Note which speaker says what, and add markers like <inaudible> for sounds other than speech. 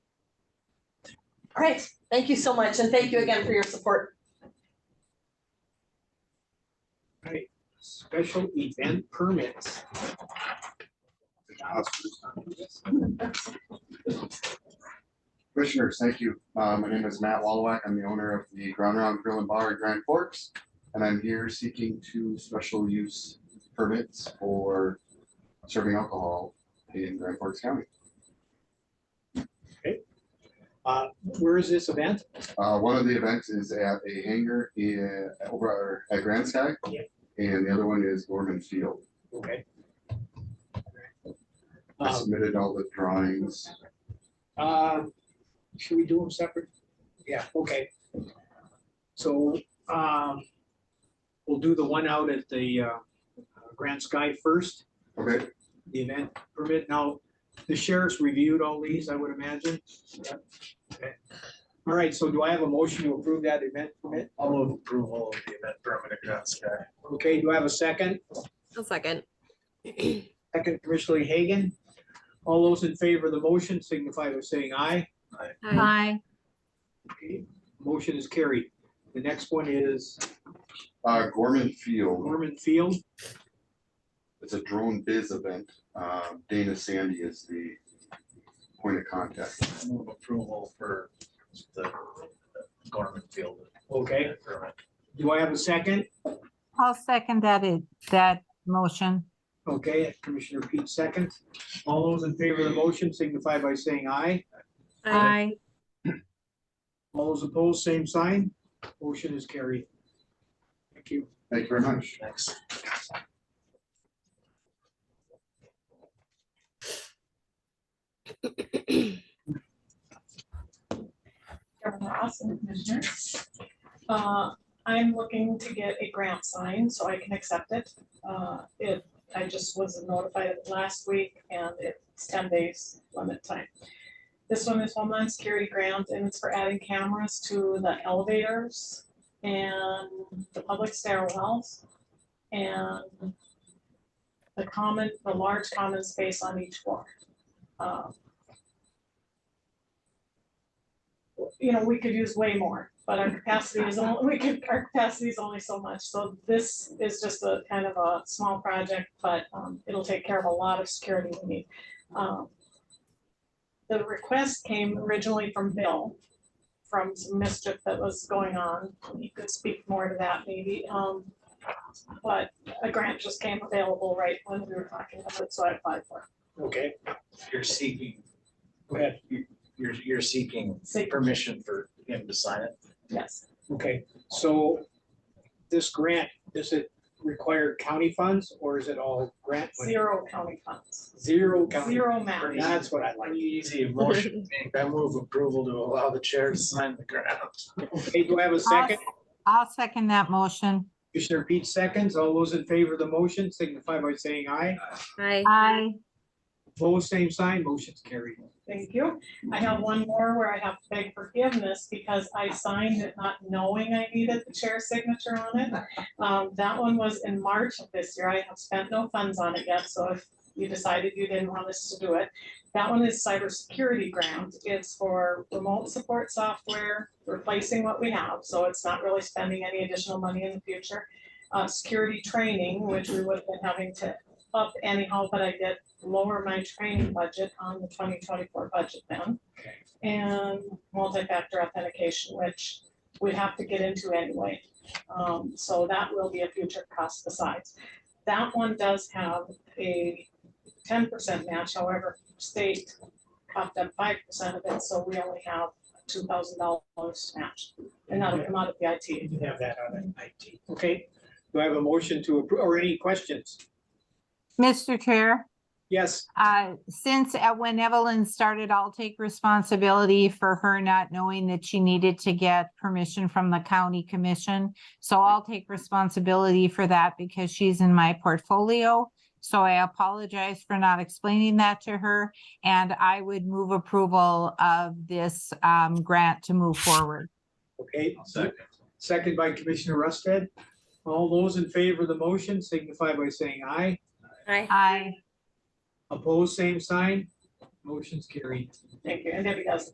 Speaker 1: All right, thank you so much, and thank you again for your support.
Speaker 2: Special event permits.
Speaker 3: Commissioners, thank you. Uh, My name is Matt Walwack. I'm the owner of the Ground Round Grill and Bar at Grand Forks. And I'm here seeking two special use permits for serving alcohol in Grand Forks County.
Speaker 2: Uh, Where is this event?
Speaker 3: Uh, One of the events is at a hangar in, over at Grand Sky.
Speaker 2: Yeah.
Speaker 3: And the other one is Gorman Field.
Speaker 2: Okay.
Speaker 3: I
Speaker 2: Um,
Speaker 3: submitted all the drawings.
Speaker 2: uh, Should we do them separate? Yeah, okay. So um, we'll do the one out at the uh, Grand Sky first,
Speaker 3: Okay,
Speaker 2: the event permit. Now, the sheriff's reviewed all these, I would imagine. Okay. All right, so do I have a motion to approve that event permit?
Speaker 4: I'll move approval of the event permit at Grand Sky.
Speaker 2: Okay, do I have a second?
Speaker 5: A second.
Speaker 2: Second, Commissioner Hagan. All those in favor of the motion signify by saying aye.
Speaker 5: Hi.
Speaker 2: Motion is carried. The next one is
Speaker 3: Uh, Gorman Field,
Speaker 2: Norman Field.
Speaker 3: it's a drone biz event. Uh, Dana Sandy is the point of contact.
Speaker 4: I'll Move approval for the the Gorman Field.
Speaker 2: Okay,
Speaker 4: Permit.
Speaker 2: do I have a second?
Speaker 6: I'll second that, it- that motion.
Speaker 2: Okay, Commissioner Pete second. All those in favor of the motion signify by saying aye.
Speaker 6: I
Speaker 2: All those opposed, same sign. Motion is carried. Thank you.
Speaker 3: Thank you very much.
Speaker 4: Next.
Speaker 7: Governor Austin, Commissioner. Uh, I'm looking to get a grant signed so I can accept it. Uh, It, I just was notified of it last week and it's ten days limit time. This one is Homeland Security Grant and it's for adding cameras to the elevators and the public stairwells and the common, the large common space on each floor. Uh, you know, we could use way more, but our capacity is only, <laughs> we could, our capacity is only so much. So this is just a kind of a small project, but um, it'll take care of a lot of security we need. Um, The request came originally from Bill, from some mischief that was going on. You could speak more to that maybe. um, But a grant just came available right when we were talking about it, so I applied for
Speaker 2: Okay,
Speaker 4: You're seeking,
Speaker 2: go ahead.
Speaker 4: you're, you're seeking
Speaker 7: it. Safe,
Speaker 4: permission for him to sign it.
Speaker 7: yes,
Speaker 2: Okay, so this grant, does it require county funds or is it all grant? money?
Speaker 7: zero county funds,
Speaker 2: Zero county.
Speaker 7: zero match.
Speaker 2: That's what I like.
Speaker 4: Easy motion to make. I move approval to allow the chair to sign the grant.
Speaker 2: Okay, do I have a second?
Speaker 6: I'll second that motion.
Speaker 2: Commissioner Pete seconds. All those in favor of the motion signify by saying aye.
Speaker 5: Hi.
Speaker 6: I
Speaker 2: Opposed, same sign, motion's carried.
Speaker 7: Thank you. I have one more where I have to beg forgiveness because I signed it not knowing I needed the chair's signature on it. Um, that one was in March of this year. I have spent no funds on it yet, so if you decided you didn't want us to do it. That one is cybersecurity grant. It's for remote support software, replacing what we have, so it's not really spending any additional money in the future. Uh, security training, which we would have been having to up anyhow, but I did lower my training budget on the twenty twenty-four budget then. And multi-factor authentication, which we have to get into anyway. Um, so that will be a future cost besides. That one does have a ten percent match, however, state copped up five percent of it, so we only have two thousand dollars match. And that'll come out of the IT.
Speaker 2: You can have that on IT. Okay, do I have a motion to approve, or any questions?
Speaker 6: Mr. Chair,
Speaker 2: Yes,
Speaker 6: uh, since uh, when Evelyn started, I'll take responsibility for her not knowing that she needed to get permission from the county commission. So I'll take responsibility for that because she's in my portfolio. So I apologize for not explaining that to her. And I would move approval of this, um, grant to move forward.
Speaker 2: okay. Second by Commissioner Rusted. All those in favor of the motion signify by saying aye.
Speaker 5: Hi.
Speaker 6: I
Speaker 2: Opposed, same sign. Motion's carried.
Speaker 7: Thank you. And Debbie does